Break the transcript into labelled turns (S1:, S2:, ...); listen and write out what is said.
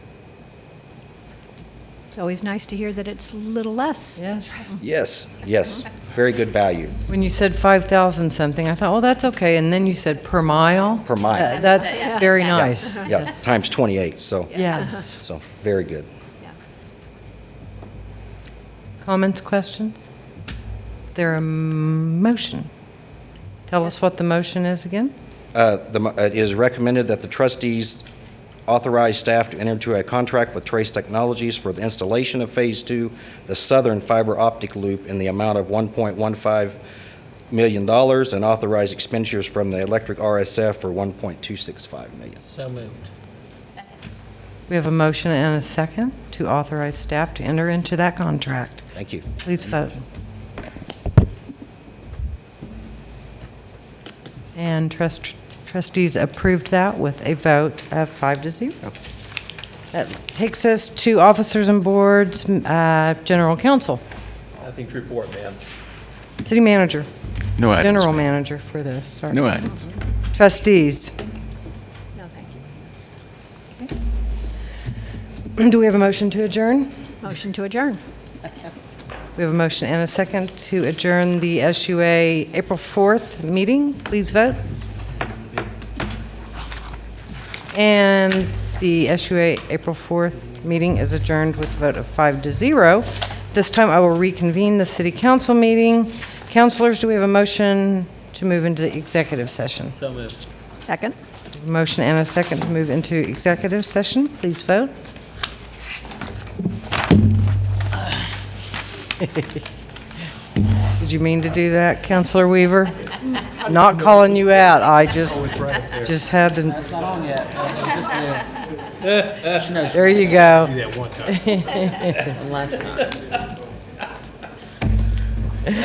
S1: It's always nice to hear that it's a little less.
S2: Yes.
S3: Yes, yes, very good value
S2: When you said 5,000 something, I thought, well, that's okay, and then you said per mile?
S3: per mile.
S2: Uh, That's very nice.
S3: Yeah, times 28, so,
S2: Yes.
S3: so, very good.
S2: Comments, questions? Is there a motion? Tell us what the motion is again?
S3: Uh, the mo- uh, It is recommended that the trustees authorize staff to enter into a contract with Trace Technologies for the installation of Phase 2, the southern fiber optic loop, in the amount of $1.15 million, dollars, and authorize expenditures from the electric RSF for $1.265 million.
S4: So moved.
S2: We have a motion and a second to authorize staff to enter into that contract.
S3: Thank you.
S2: Please vote. And trust- trustees approved that with a vote of five to zero. That takes us to officers and boards, uh, general counsel,
S5: Nothing to report, ma'am.
S2: city manager.
S6: No items,
S2: General
S6: ma'am.
S2: manager for this, sorry.
S6: No items.
S2: Trustees,
S1: No, thank you.
S2: do we have a motion to adjourn?
S1: Motion to adjourn.
S2: We have a motion and a second to adjourn the SUA April 4th meeting. Please vote. And the SUA April 4th meeting is adjourned with a vote of five to zero. This time, I will reconvene the city council meeting. Councilors, do we have a motion to move into executive session?
S4: So moved.
S1: Second.
S2: Motion and a second to move into executive session. Please vote. Did you mean to do that, Counselor Weaver? Not calling you out, I just, just had to. That's not on yet. There you go.
S4: One last time.